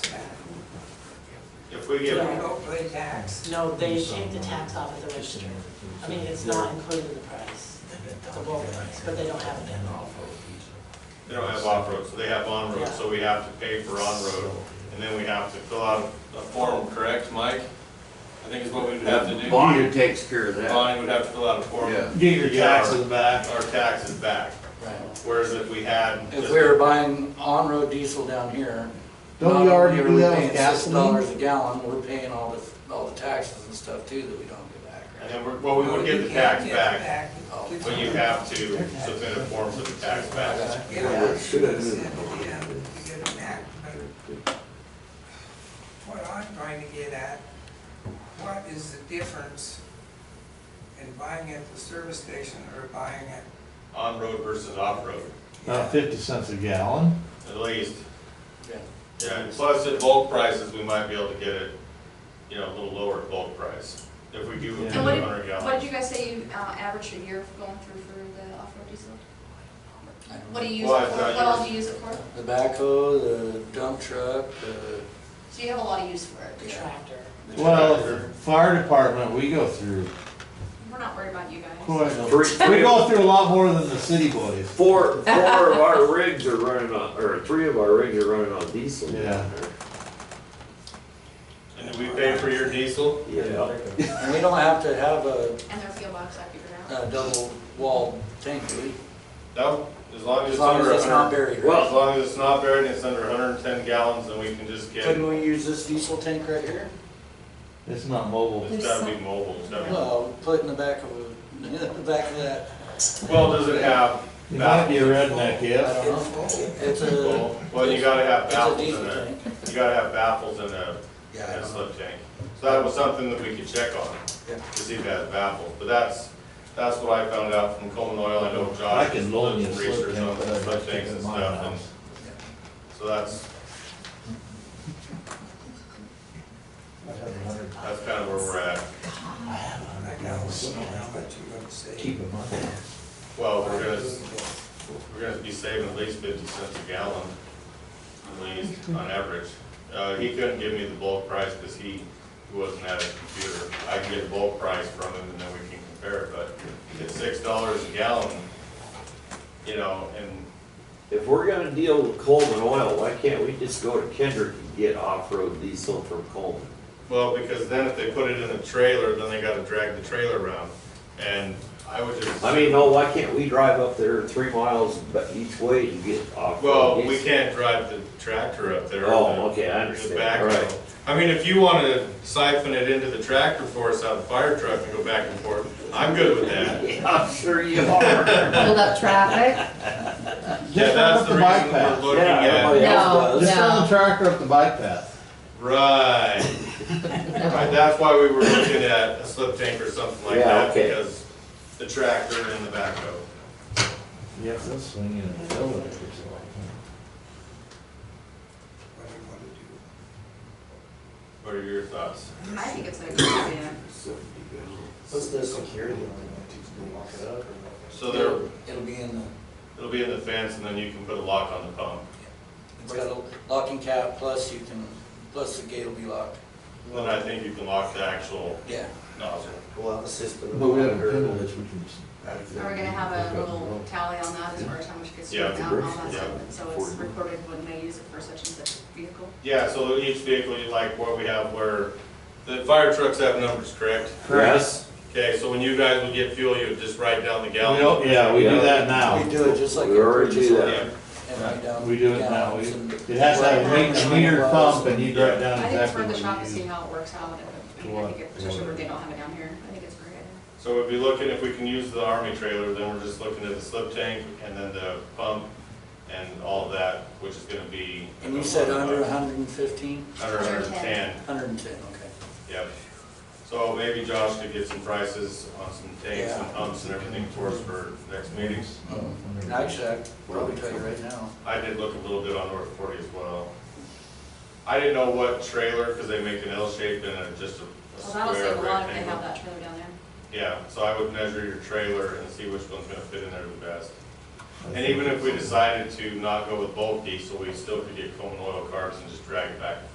we So get, we don't pay tax. No, they take the tax off at the register. I mean, it's not included in the price, the bulk price, but they don't have it uh, in. they don't have off-road, so they have on-road, so we have to pay for on-road. And then we have to fill out a form, correct, Mike? I think is what we would have to do. Bonnie takes care of that, Bonnie would have to fill out a form. yeah. Get your To get our- taxes back. Our taxes back, whereas if we had. If just- we were buying on-road diesel down here. Don't not we already only are we do that with paying gasoline? Six dollars a gallon, we're paying all the, all the taxes and stuff too that we don't get back. And then, we're- well, we would get the tax back, Oh, but you have to submit a form for the tax back. Yeah, should have it's been. in the end, you get an act, but What I'm trying to get at, what is the difference in buying at the service station or buying at? On-road versus off-road, Uh, About Uh, fifty cents a gallon. at least. Yeah. Yeah, and plus at bulk prices, we might be able to get it, you know, a little lower at bulk price, if we do a Yeah. And what did, hundred what did gallons. you guys say you, uh, averaged a year of going through for the off-road diesel? I don't What do know. you use it Well, I for? thought What you all were- do you use it for? The backhoe, the dump truck, the, So you have a lot of use for The it. tractor. Well, if the fire department, we go through We're not worried about you guys. quite, a- Three, we three, go through a lot more than the city boys. four, four of our rigs are running on, or three of our rigs are running on diesel. down Yeah. And then we pay for your diesel, there. Yeah, and we don't have to have a, And their fuel box, I figured out. a double walled tank, do we? no, as long as As it's long as under it's not hundred, buried. right? Well- as long as it's not buried, and it's under hundred and ten gallons, then we can just get, Couldn't we use this diesel tank right here? It's not mobile. it's gotta be mobile, it's gotta be- Well, put in the back of, a- in the back of that, Well, does it have, You might be a redneck, I yeah. don't know. It's a, well, you gotta have it's a baffles in diesel it. tank. You gotta have baffles and a, Yeah, I and a don't know. slip tank. So that was something that we could check on, Yeah. to see if it has baffles. But that's, that's what I found out from Coleman Oil, I know I Josh did can some loan you a slip research tank, on but I'd slip have to tanks get and mine stuff, out. and so that's, I'd have a hundred- that's kind of where we're at. I have a hundred I know, gallons. so how much you gonna Keep save? it money. Well, we're gonna, we're gonna be saving at least fifty cents a gallon, at least, on average. Uh, he couldn't give me the bulk price because he he wasn't at his computer. I can get a bulk price from him and then we can compare it, but it's six dollars a gallon, you know, and If we're gonna deal with Coleman Oil, why can't we just go to Kendrick and get off-road diesel from Coleman? Well, because then if they put it in a trailer, then they gotta drag the trailer around, and I would just. I mean, no, why can't we drive up there three miles ba- each way to get off? Well, we can't drive the tractor up there. or Oh, the- okay, I the understand. backhoe. All right. I mean, if you wanna siphon it into the tractor for us out of the fire truck and go back and forth, I'm good with that. Yeah, I'm sure you are. hold up traffic. Yeah, Just that's up the the bike reason we're path. looking Yeah, at, everybody No, else does. Just on no. the tractor up the bike path. right. Right, that's why we were looking at a slip tank or something like Yeah, that, okay. because the tractor and the backhoe. Yes, they'll swing in and fill it or something. What do you wanna do? What are your thoughts? I think it's a good idea. What's the security So there, It'll be in the, It'll be in the fence and then you can put a lock on the pump. it's got a locking cap, plus you can, plus the gate will be locked. Then I think you can lock the actual Yeah. nozzle. We'll have a system. But we have a pedal which we can. Are we gonna have a little tally on that as far as how much gets Yeah. spent out and all that Yeah. stuff? So it's recorded when they use it for such and such vehicle? Yeah, so each vehicle, you like what we have where, the fire trucks have numbers, correct? Yes, Okay, so when you guys would get fuel, you would just write down the We gallon. don't- Yeah, we do that now. We do it just like. We already do that. Yeah, And write down We do it now. We- gallons and- It has to have a meter- a meter pump and you drive down I think it's exactly worth what the shot to you see use. how it works out. I mean, I think it- especially where they don't have it down here. I think it's a great. idea. so we'd be looking, if we can use the army trailer, then we're just looking at the slip tank and then the pump and all of that, which is gonna be. And you said under hundred and fifteen, Under a hundred and ten, hundred and ten, okay. yep. So maybe Josh could get some prices on some tanks and Yeah. pumps and everything for us for next meetings. Oh, And Actually, I could probably tell you right now. I did look a little bit on North Forty as well. I didn't know what trailer, because they make an L shape and a- just a- a Well, that'll save square a lot if they have rectangle. that trailer down there. Yeah, so I would measure your trailer and see which one's gonna fit in there the best. And even if we decided to not go with bulk diesel, we still could get Coleman oil carbs and just drag it back and